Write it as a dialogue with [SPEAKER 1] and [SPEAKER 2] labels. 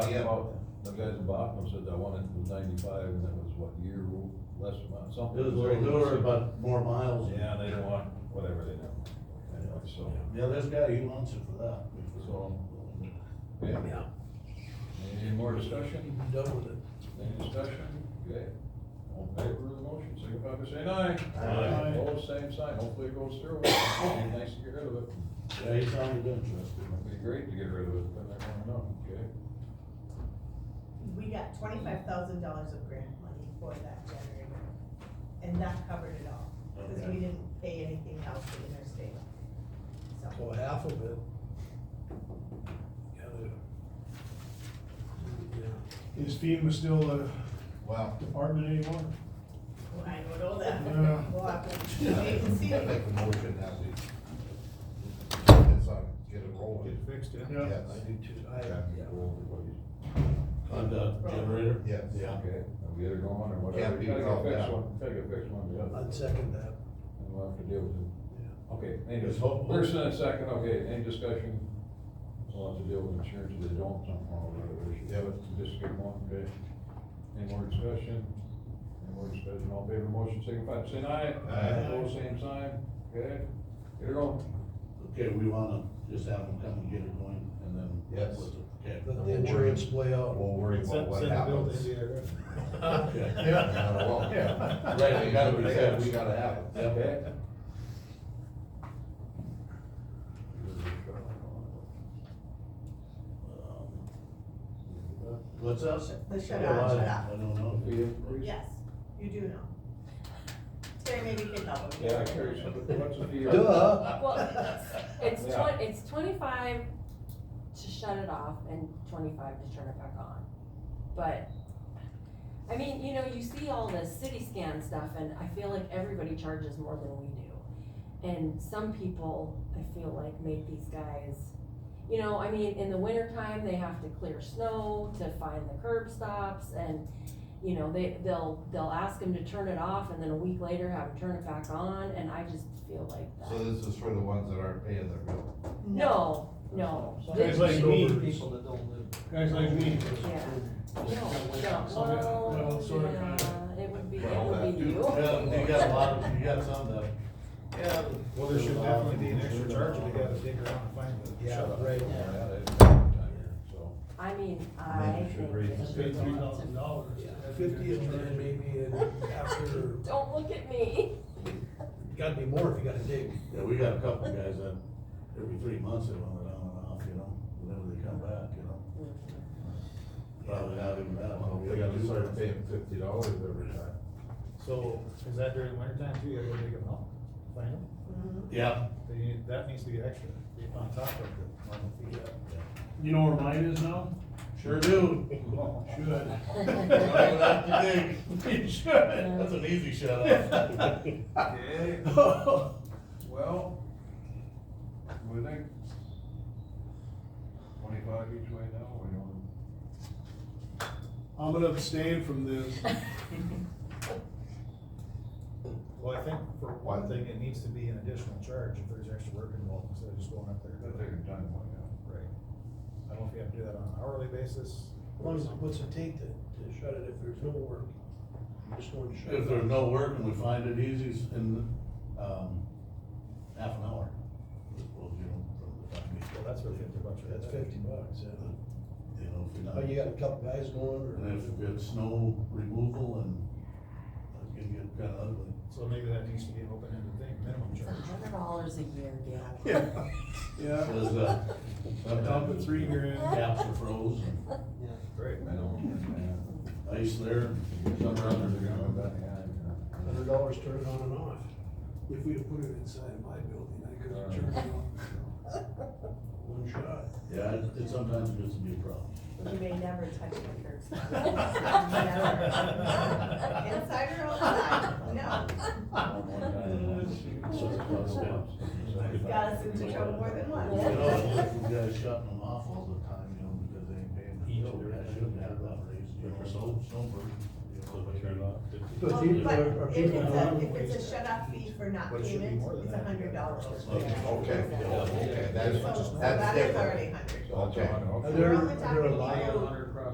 [SPEAKER 1] Yeah.
[SPEAKER 2] Bachman, the guys in Bachman said that one was ninety-five, and that was what, year, less amount, something.
[SPEAKER 1] It was newer, but more miles.
[SPEAKER 2] Yeah, they don't want, whatever they know, anyway, so,
[SPEAKER 1] Yeah, this guy, he wants it for that.
[SPEAKER 2] so, yeah,
[SPEAKER 3] Yeah,
[SPEAKER 2] any more discussion?
[SPEAKER 3] I'm done with it.
[SPEAKER 2] Any discussion? Okay. All in favor of the motion, signify by saying aye.
[SPEAKER 1] Aye.
[SPEAKER 2] All same sign, hopefully it goes through. It'd be nice to get rid of it.
[SPEAKER 1] Yeah, he sounded interested.
[SPEAKER 2] It'd be great to get rid of it, but I don't know, okay?
[SPEAKER 4] We got twenty-five thousand dollars of grant money for that generator, and that covered it all, because
[SPEAKER 1] Okay.
[SPEAKER 4] we didn't pay anything else to interstate. So,
[SPEAKER 3] So half of it. Gotta. Yeah,
[SPEAKER 5] Is FEMA still a
[SPEAKER 6] Well,
[SPEAKER 5] department anymore?
[SPEAKER 4] well, I don't know that,
[SPEAKER 5] Yeah.
[SPEAKER 4] we'll have
[SPEAKER 6] I
[SPEAKER 4] to wait and see.
[SPEAKER 6] make a motion that we, it's on, get it
[SPEAKER 3] Get
[SPEAKER 6] rolling.
[SPEAKER 3] fixed, yeah.
[SPEAKER 5] Yeah.
[SPEAKER 6] Yes,
[SPEAKER 2] I do too.
[SPEAKER 3] I- yeah.
[SPEAKER 1] On the generator?
[SPEAKER 6] yes.
[SPEAKER 1] Yeah.
[SPEAKER 2] Okay, are we either going or
[SPEAKER 6] Can't
[SPEAKER 2] whatever?
[SPEAKER 6] be
[SPEAKER 2] You gotta get
[SPEAKER 6] without that.
[SPEAKER 2] fixed one, gotta get fixed one, or the other.
[SPEAKER 3] I'd second that,
[SPEAKER 2] And we'll have to deal with it.
[SPEAKER 3] yeah.
[SPEAKER 2] Okay,
[SPEAKER 1] It's
[SPEAKER 2] any,
[SPEAKER 1] hopeful.
[SPEAKER 2] first and a second, okay, any discussion? We'll have to deal with insurance if they don't, somehow or other issue.
[SPEAKER 6] Yeah,
[SPEAKER 2] Just get one, okay? Any more discussion? Any more discussion, all in favor of the motion, signify by saying aye.
[SPEAKER 6] Aye.
[SPEAKER 2] Opposed, same sign, okay? Get it on.
[SPEAKER 1] Okay, we wanna just have him come and get it going, and then.
[SPEAKER 6] Yes.
[SPEAKER 1] Okay.
[SPEAKER 3] Let the insurance play out.
[SPEAKER 6] We'll worry about what happens.
[SPEAKER 1] Yeah.
[SPEAKER 6] Well, yeah.
[SPEAKER 1] Right, we gotta be
[SPEAKER 6] They
[SPEAKER 1] fixed.
[SPEAKER 6] We gotta have it.
[SPEAKER 1] Yep.
[SPEAKER 2] Okay.
[SPEAKER 1] Um, What's that?
[SPEAKER 4] The shut-off,
[SPEAKER 1] Oh, I-
[SPEAKER 4] shut-off.
[SPEAKER 1] I don't know.
[SPEAKER 4] Yes, you do know. Terry maybe can help.
[SPEAKER 2] Yeah, I carry some, what's the fee?
[SPEAKER 1] Duh.
[SPEAKER 7] Well, it's
[SPEAKER 2] Yeah.
[SPEAKER 7] twen- it's twenty-five to shut it off and twenty-five to turn it back on. But, I mean, you know, you see all this city scan stuff and I feel like everybody charges more than we do. And some people, I feel like, make these guys, you know, I mean, in the wintertime, they have to clear snow to find the curb stops and, you know, they, they'll, they'll ask them to turn it off and then a week later have them turn it back on and I just feel like that.
[SPEAKER 6] So this is for the ones that aren't paying their bill.
[SPEAKER 7] No, no.
[SPEAKER 5] Guys like me. People
[SPEAKER 3] that don't live.
[SPEAKER 5] Guys like me.
[SPEAKER 7] Yeah. No, no,
[SPEAKER 5] Well,
[SPEAKER 7] well,
[SPEAKER 5] sort of, kind of.
[SPEAKER 7] yeah, it would be, it
[SPEAKER 6] Well,
[SPEAKER 7] would
[SPEAKER 6] that
[SPEAKER 7] be
[SPEAKER 6] do-
[SPEAKER 7] you.
[SPEAKER 1] Yeah, you got a lot, of- you got some that,
[SPEAKER 6] Yeah.
[SPEAKER 8] Well, there should definitely be an extra charge if you gotta dig around and find the.
[SPEAKER 3] Yeah,
[SPEAKER 8] shut-off.
[SPEAKER 3] right.
[SPEAKER 2] Yeah, they- so,
[SPEAKER 7] I mean, I
[SPEAKER 6] should
[SPEAKER 7] think
[SPEAKER 6] raise
[SPEAKER 7] it
[SPEAKER 6] the
[SPEAKER 7] would
[SPEAKER 6] state
[SPEAKER 7] be
[SPEAKER 6] three
[SPEAKER 7] lots of-
[SPEAKER 8] dollars.
[SPEAKER 3] Fifty and then maybe an after,
[SPEAKER 7] Don't look at me.
[SPEAKER 3] gotta be more if you gotta dig.
[SPEAKER 1] yeah, we got a couple of guys that, every three months they want it on and off, you know, whenever they come back, you know. Probably not even that
[SPEAKER 6] Well,
[SPEAKER 1] long.
[SPEAKER 6] we gotta start paying fifty dollars every time.
[SPEAKER 8] So, is that during the winter time too, you gotta go dig them up, find them?
[SPEAKER 4] Mhm.
[SPEAKER 1] Yeah.
[SPEAKER 8] They, need- that needs to be extra, be on top of the normal fee.
[SPEAKER 5] You know where mine is now?
[SPEAKER 1] Sure do.
[SPEAKER 5] Should.
[SPEAKER 1] Why would I have to dig? You should. That's an easy shut off.
[SPEAKER 2] okay, well, we think twenty-five each way now, we don't.
[SPEAKER 5] I'm gonna abstain from this.
[SPEAKER 8] Well, I think for one thing, it needs to be an additional charge if there's extra work involved, instead of just going up there.
[SPEAKER 2] They're taking time away now.
[SPEAKER 8] Right. I don't know if you have to do that on an hourly basis. or
[SPEAKER 3] What's,
[SPEAKER 8] something.
[SPEAKER 3] what's it take to, to shut it if there's no work? You Just want to shut
[SPEAKER 1] If
[SPEAKER 3] it.
[SPEAKER 1] there's no work and we find it easy in, um, half an hour. Well, you know, from the time
[SPEAKER 8] Well, that's where fifty bucks. right
[SPEAKER 3] That's
[SPEAKER 8] there.
[SPEAKER 3] fifty bucks, yeah.
[SPEAKER 1] we- You know, if you're not.
[SPEAKER 3] Oh, you got a couple guys going
[SPEAKER 1] And if it's snow removal and it can get kinda ugly.
[SPEAKER 8] So maybe that needs to be an open-ended thing, minimum
[SPEAKER 7] It's a
[SPEAKER 8] charge.
[SPEAKER 3] Uh-huh.
[SPEAKER 7] hundred dollars a year, Gail.
[SPEAKER 5] Yeah. Yeah,
[SPEAKER 1] Cause, uh,
[SPEAKER 5] I'm down
[SPEAKER 1] sometimes
[SPEAKER 5] to three grand.
[SPEAKER 1] Caps are froze and
[SPEAKER 8] Right.
[SPEAKER 2] I don't.
[SPEAKER 1] ice there, somewhere underground.
[SPEAKER 3] or hundred dollars turn it on and off. If we'd have put it inside my building, I could have turned it on. One shot.
[SPEAKER 1] Yeah, it it sometimes gets to be a problem.
[SPEAKER 4] You may never touch my curb stop. Never.
[SPEAKER 7] Never.
[SPEAKER 4] Inside or outside, no.
[SPEAKER 7] uh,
[SPEAKER 4] He's got us into trouble more than
[SPEAKER 1] You
[SPEAKER 4] once.
[SPEAKER 1] know, it's like you guys shutting them off all the time, you know, because they ain't paying.
[SPEAKER 3] Each
[SPEAKER 1] their bill.
[SPEAKER 3] and
[SPEAKER 1] That shouldn't
[SPEAKER 3] every time.
[SPEAKER 1] have that raise, you know, so, so.
[SPEAKER 3] But
[SPEAKER 4] Well,
[SPEAKER 3] people
[SPEAKER 4] but
[SPEAKER 3] are, are
[SPEAKER 4] if it's
[SPEAKER 3] people
[SPEAKER 4] a,
[SPEAKER 3] on
[SPEAKER 4] if it's a shut off fee for not
[SPEAKER 8] But it should be
[SPEAKER 4] payment,
[SPEAKER 8] more than
[SPEAKER 4] it's a
[SPEAKER 8] that.
[SPEAKER 4] hundred dollars.
[SPEAKER 6] Okay, okay,
[SPEAKER 4] So,
[SPEAKER 6] that's,
[SPEAKER 4] so
[SPEAKER 6] that's
[SPEAKER 4] that is
[SPEAKER 6] different.
[SPEAKER 4] already hundred.
[SPEAKER 6] Okay.
[SPEAKER 4] We're only
[SPEAKER 3] Are there, are there a
[SPEAKER 4] talking
[SPEAKER 3] lot
[SPEAKER 4] about
[SPEAKER 3] of